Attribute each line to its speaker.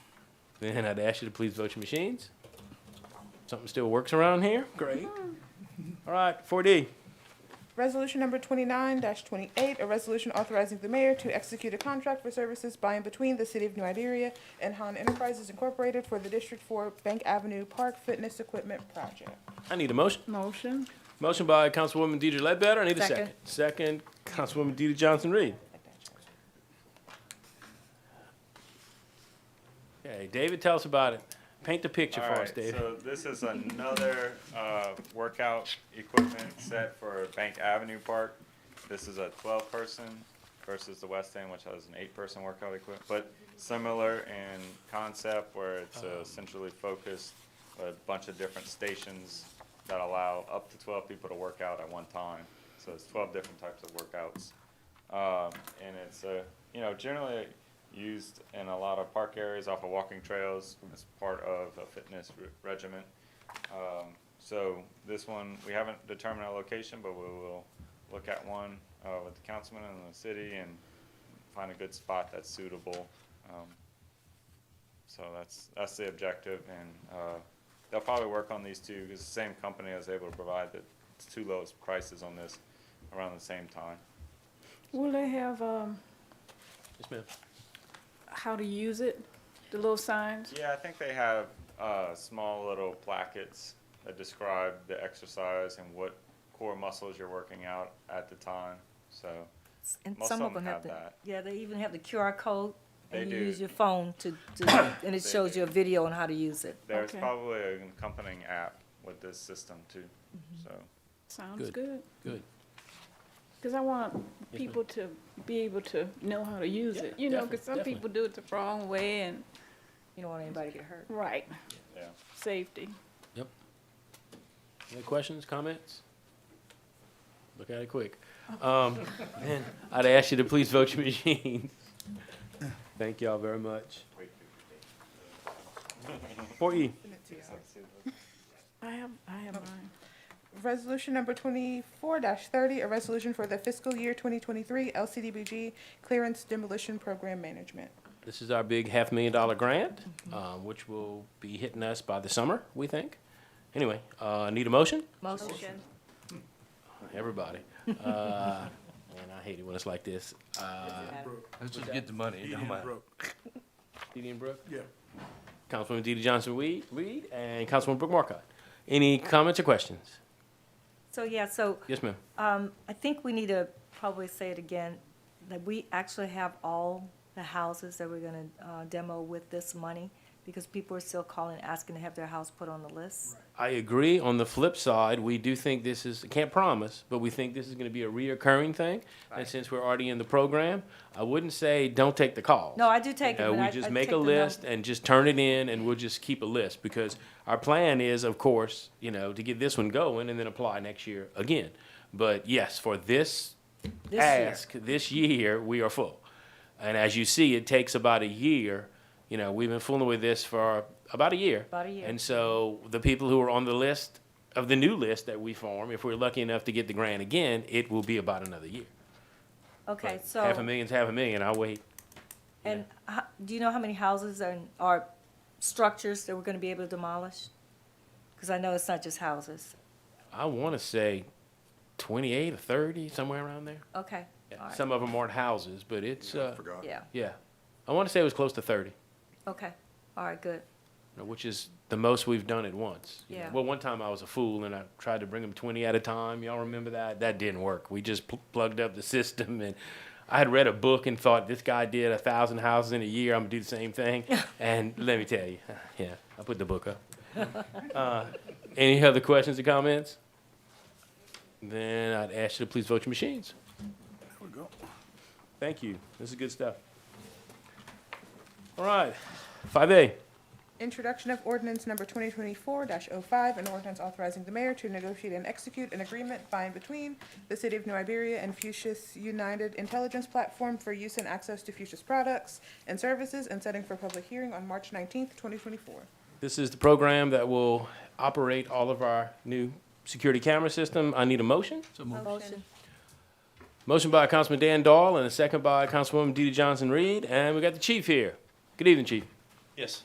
Speaker 1: Then I'd ask you to please vote your machines. Something still works around here? Great. All right, 4D.
Speaker 2: Resolution number twenty-nine twenty-eight, a resolution authorizing the mayor to execute a contract for services by and between the city of New Iberia and Han Enterprises Incorporated for the District Four Bank Avenue Park Fitness Equipment Project.
Speaker 1: I need a motion.
Speaker 3: Motion.
Speaker 1: Motion by Councilwoman Deidre Ledbetter. I need a second.
Speaker 3: Second.
Speaker 1: Second, Councilwoman Deidre Johnson Reed. Okay, David, tell us about it. Paint the picture for us,
Speaker 4: Alright,
Speaker 1: David.
Speaker 4: so this is another, uh, workout equipment set for Bank Avenue Park. This is a twelve person versus the West End, which has an eight person workout equipment, but similar in concept where it's uh, centrally focused, with a bunch of different stations that allow up to twelve people to work out at one time. So it's twelve different types of workouts. Um, and it's, uh, you know, generally used in a lot of park areas off of walking trails as part of a fitness re- regimen. Um, so this one, we haven't determined a location, but we will look at one, uh, with the councilman and the city and find a good spot that's suitable. Um, so that's, that's the objective and, uh, they'll probably work on these two because the same company is able to provide the two lowest prices on this around the same time.
Speaker 3: Will they have, um,
Speaker 1: Yes, ma'am.
Speaker 3: how to use it? The little signs?
Speaker 4: Yeah, I think they have uh, small little plackets that describe the exercise and what core muscles you're working out at the time. So
Speaker 5: And
Speaker 4: Most
Speaker 5: some
Speaker 4: of
Speaker 5: of
Speaker 4: them
Speaker 5: them
Speaker 4: have
Speaker 5: have the,
Speaker 4: that.
Speaker 5: yeah, they even have the QR code.
Speaker 4: They
Speaker 5: And you
Speaker 4: do.
Speaker 5: use your phone to, to, and it
Speaker 4: They
Speaker 5: shows
Speaker 4: do.
Speaker 5: you a video on how to use it.
Speaker 4: there's
Speaker 3: Okay.
Speaker 4: probably an accompanying app with this system too. So
Speaker 3: Sounds
Speaker 1: Good.
Speaker 3: good.
Speaker 1: Good.
Speaker 3: Because I want
Speaker 1: ma'am.
Speaker 3: people to be able to know how to use it, you know,
Speaker 1: definitely,
Speaker 3: because some
Speaker 1: definitely.
Speaker 3: people do it the wrong way and,
Speaker 5: You don't want anybody to get hurt.
Speaker 3: right,
Speaker 4: yeah,
Speaker 3: safety.
Speaker 1: Any questions, comments? Look at it quick. Um, then I'd ask you to please vote your machines. Thank y'all very much. Four E.
Speaker 3: I have, I have mine.
Speaker 2: Resolution number twenty-four thirty, a resolution for the fiscal year twenty twenty-three LCDBG Clearance Demolition Program Management.
Speaker 1: This is our big half million dollar grant, uh, which will be hitting us by the summer, we think. Anyway, uh, need a motion?
Speaker 5: Motion.
Speaker 1: Everybody. Uh, man, I hate it when it's like this. Uh,
Speaker 6: Let's just get the money. It don't matter.
Speaker 1: Didi and Brooke?
Speaker 6: Yeah.
Speaker 1: Councilwoman Didi Johnson Reed, Reed and Councilwoman Brooke Marcotte. Any comments or questions?
Speaker 5: So, yeah, so,
Speaker 1: Yes, ma'am.
Speaker 5: um, I think we need to probably say it again, that we actually have all the houses that we're gonna, uh, demo with this money, because people are still calling, asking to have their house put on the list.
Speaker 1: I agree. On the flip side, we do think this is, can't promise, but we think this is going to be a reoccurring thing. And since we're already in the program, I wouldn't say don't take the call.
Speaker 5: No, I do take it,
Speaker 1: Uh,
Speaker 5: but
Speaker 1: we
Speaker 5: I, I
Speaker 1: just
Speaker 5: take
Speaker 1: make
Speaker 5: the
Speaker 1: a
Speaker 5: num-
Speaker 1: list and just turn it in, and we'll just keep a list because our plan is, of course, you know, to get this one going and then apply next year again. But yes, for this,
Speaker 5: This year.
Speaker 1: ask this year, we are full. And as you see, it takes about a year. You know, we've been fooling with this for about a year.
Speaker 5: About a year.
Speaker 1: And so the people who are on the list of the new list that we form, if we're lucky enough to get the grant again, it will be about another year.
Speaker 5: Okay,
Speaker 1: But
Speaker 5: so.
Speaker 1: half a million's half a million. I'll wait.
Speaker 5: And ho- do you know how many houses and, or structures that we're gonna be able to demolish? Because I know it's not just houses.
Speaker 1: I want to say 28 or 30, somewhere around there.
Speaker 5: Okay, all right,
Speaker 1: Some of them aren't houses, but it's, uh,
Speaker 5: yeah,
Speaker 1: yeah. I want to say it was close to 30,
Speaker 5: okay, all right, good.
Speaker 1: which is the most we've done at once. you know.
Speaker 5: Yeah.
Speaker 1: Well, one time I was a fool and I tried to bring them 20 at a time. Y'all remember that? That didn't work. We just pl- plugged up the system and I had read a book and thought this guy did a thousand houses in a year. I'm gonna do the same thing. and let me tell you, yeah, I put the book up. uh, any other questions or comments? Then I'd ask you to please vote your machines.
Speaker 6: There we go.
Speaker 1: Thank you. This is good stuff. All right, five A.
Speaker 2: Introduction of ordinance number twenty twenty-four 5 an ordinance authorizing the mayor to negotiate and execute an agreement by and between the city of New Iberia and Fuchsia's United Intelligence Platform for use and access to Fuchsia's products and services and setting for public hearing on March nineteenth, twenty twenty-four.
Speaker 1: This is the program that will operate all of our new security camera system. I need a motion.
Speaker 6: So move.
Speaker 5: Motion.
Speaker 1: Motion by Councilman Dan Dahl and a second by Councilwoman DeeDee Johnson Reed. And we got the chief here. Good evening, chief.
Speaker 6: Yes.